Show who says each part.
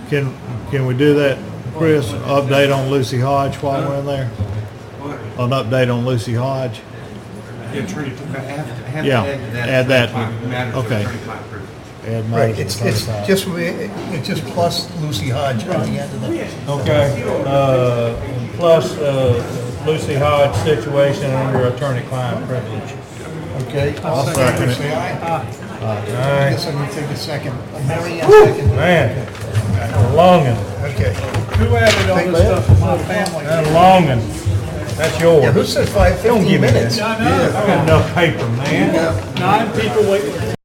Speaker 1: Can, can we do that, Chris? Update on Lucy Hodge while we're in there? An update on Lucy Hodge?
Speaker 2: The
Speaker 1: uh,
Speaker 2: attorney took half, half
Speaker 1: Yeah, add that.
Speaker 2: Matters of
Speaker 1: Okay.
Speaker 2: attorney-client privilege.
Speaker 1: Add
Speaker 3: Right,
Speaker 1: matters of
Speaker 3: it's, it's
Speaker 1: attorney-client.
Speaker 3: just, we- it's just plus Lucy Hodge at the end of the,
Speaker 4: Okay, uh, plus uh, Lucy Hodge situation under attorney-client privilege.
Speaker 3: okay? All in
Speaker 1: second
Speaker 3: favor,
Speaker 1: it.
Speaker 3: say aye.
Speaker 4: All
Speaker 3: I
Speaker 4: right,
Speaker 3: guess I need to take a second. Mary Ann, second.
Speaker 4: man, that longing,
Speaker 3: Okay.
Speaker 4: who added all
Speaker 3: this stuff to my family?
Speaker 4: that longing, that's yours.
Speaker 3: Yeah, who said five,
Speaker 4: Don't
Speaker 3: fifteen
Speaker 4: give me that.
Speaker 3: minutes?
Speaker 4: I got enough paper, man.
Speaker 5: Nine people waiting for